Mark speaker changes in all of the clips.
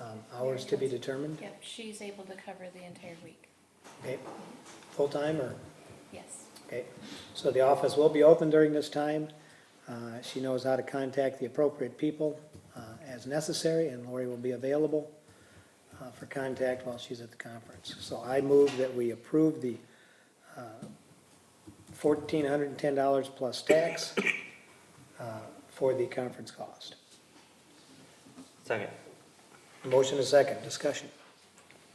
Speaker 1: Um, Hours to be determined?
Speaker 2: Yep, she's able to cover the entire week,
Speaker 1: Okay, full-time or?
Speaker 2: yes.
Speaker 1: Okay, so the office will be open during this time. Uh, She knows how to contact the appropriate people uh, as necessary, and Lori will be available uh, for contact while she's at the conference. So I move that we approve the uh, $1,410 plus tax uh, for the conference cost.
Speaker 3: Second.
Speaker 1: Motion is second, discussion.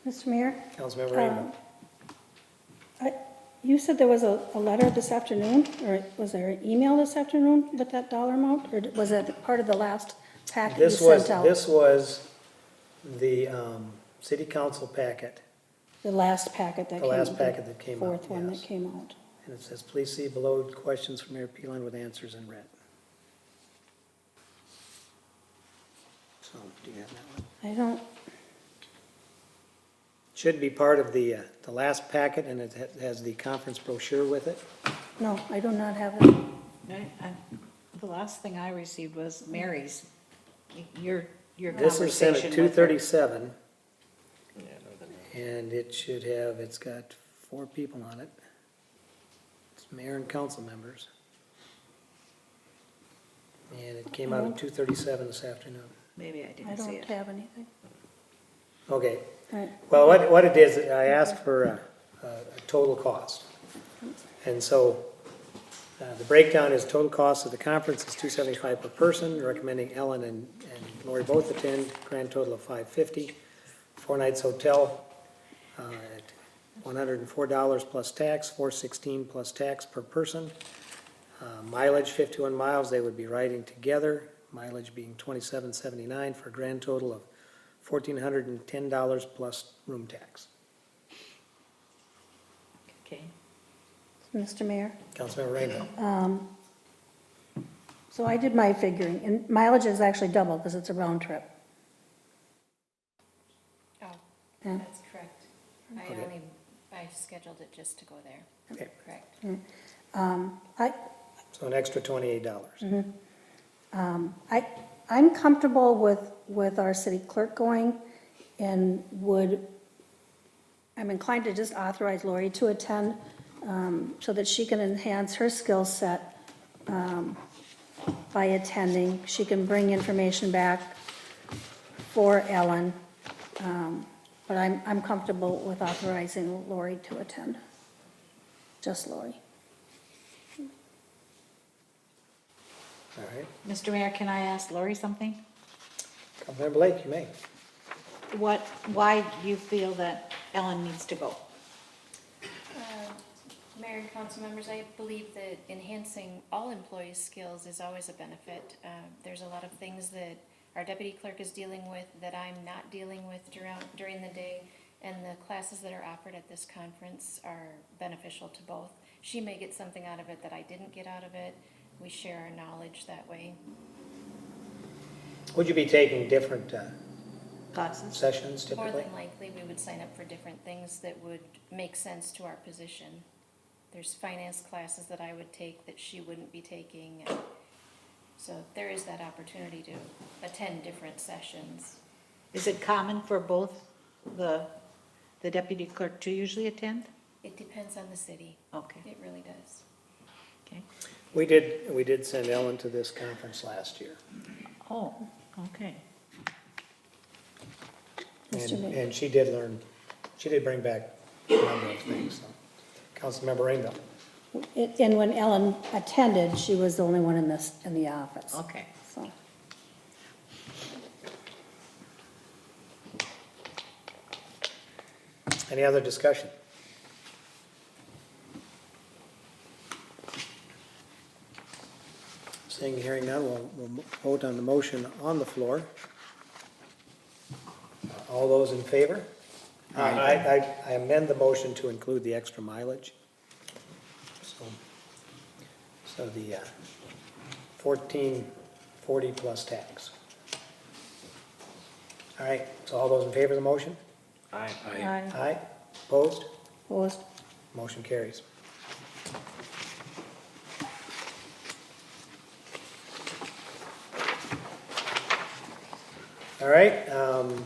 Speaker 4: Mr. Mayor,
Speaker 1: Councilmember Rainbow.
Speaker 4: Um, I- you said there was a, a letter this afternoon, or was there an email this afternoon with that dollar amount? Or was it part of the last packet you
Speaker 1: This was,
Speaker 4: sent out?
Speaker 1: this was the um, city council packet,
Speaker 4: The last packet that
Speaker 1: The
Speaker 4: came out?
Speaker 1: last packet that came out,
Speaker 4: Fourth one that
Speaker 1: yes.
Speaker 4: came out.
Speaker 1: and it says, please see below questions from Mayor Peeland with answers in red. So, do you have that one?
Speaker 4: I don't,
Speaker 1: Should be part of the, uh, the last packet, and it ha- has the conference brochure with it.
Speaker 4: no, I do not have it.
Speaker 5: I- I- The last thing I received was Mary's, your, your
Speaker 1: This was
Speaker 5: conversation
Speaker 1: sent
Speaker 5: with her.
Speaker 1: at two thirty-seven,
Speaker 3: Yeah, no, that-
Speaker 1: and it should have, it's got four people on it. It's mayor and council members. And it came
Speaker 5: Mm-hmm.
Speaker 1: out at two thirty-seven this afternoon.
Speaker 5: Maybe I
Speaker 4: I
Speaker 5: didn't see
Speaker 4: don't
Speaker 5: it.
Speaker 4: have anything.
Speaker 1: Okay,
Speaker 4: All right,
Speaker 1: Well, what, what it is, I asked for a, a a total cost. And so, uh, the breakdown is total cost of the conference is two seventy-five per person, recommending Ellen and, and Lori both attend, grand total of five fifty. Four nights hotel, uh, at one hundred and four dollars plus tax, four sixteen plus tax per person. Uh, mileage fifty-one miles, they would be riding together, mileage being twenty-seven seventy-nine for a grand total of fourteen hundred and ten dollars plus room tax.
Speaker 5: Okay.
Speaker 4: Mr. Mayor. um,
Speaker 1: Councilmember Rainbow.
Speaker 4: So I did my figuring, and mileage is actually double because it's a round trip.
Speaker 2: Oh,
Speaker 4: Yeah.
Speaker 2: that's correct. I
Speaker 1: Okay.
Speaker 2: only, I scheduled it just to go there,
Speaker 1: Okay.
Speaker 2: correct.
Speaker 4: I,
Speaker 1: So an extra twenty-eight dollars.
Speaker 2: Mm-hmm.
Speaker 4: I, I'm comfortable with, with our city clerk going and would, I'm inclined to just authorize Lori to attend um, so that she can enhance her skill set um, by attending. She can bring information back for Ellen. um, But I'm, I'm comfortable with authorizing Lori to attend. Just Lori.
Speaker 1: All right.
Speaker 5: Mr. Mayor, can I ask Lori something?
Speaker 1: Councilmember Blake, you may.
Speaker 5: What, why do you feel that Ellen needs to go?
Speaker 2: Uh, Mayor and council members, I believe that enhancing all employees' skills is always a benefit. Uh, There's a lot of things that our deputy clerk is dealing with that I'm not dealing with during, during the day. And the classes that are offered at this conference are beneficial to both. She may get something out of it that I didn't get out of it. We share our knowledge that way.
Speaker 1: Would you be taking different uh,
Speaker 5: Classes?
Speaker 1: sessions
Speaker 2: More
Speaker 1: typically?
Speaker 2: than likely, we would sign up for different things that would make sense to our position. There's finance classes that I would take that she wouldn't be taking. and So there is that opportunity to attend different sessions.
Speaker 5: Is it common for both the, the deputy clerk to usually attend?
Speaker 2: It depends on the city.
Speaker 5: Okay,
Speaker 2: It really does.
Speaker 5: okay.
Speaker 1: We did, we did send Ellen to this conference last year.
Speaker 5: Oh, okay.
Speaker 4: Mr.
Speaker 1: And,
Speaker 4: Mayor.
Speaker 1: and she did learn, she did bring back a number of things, so. Councilmember Rainbow.
Speaker 4: It- And when Ellen attended, she was the only one in this, in the office.
Speaker 5: Okay.
Speaker 4: So,
Speaker 1: Any other discussion? Seeing, and hearing none, we'll, we'll vote on the motion on the floor. All those in favor? I, I- I amend the motion to include the extra mileage. So, so the uh, fourteen forty plus tax. All right, so all those in favor of the motion?
Speaker 3: Aye.
Speaker 5: Aye.
Speaker 1: Aye, opposed?
Speaker 4: Opposed?
Speaker 1: Motion carries. All right, um,